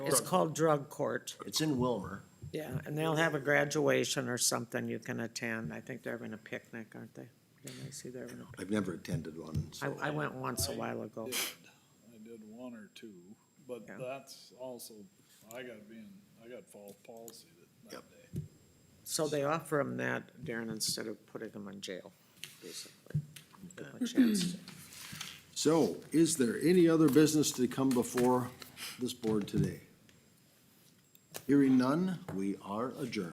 It's called drug court, It's in Wilmer. yeah, and they'll have a graduation or something you can attend. I think they're having a picnic, aren't they? Didn't I see they're having a, I've never attended one, so. I, I went once a while ago. I did one or two, but Yeah. that's also, I got being, I got fall palsy that, that Yep. day. So they offer them that, Darren, instead of putting them in jail, basically. Give 'em a chance to- So is there any other business to come before this board today? Hearing none, we are adjourned.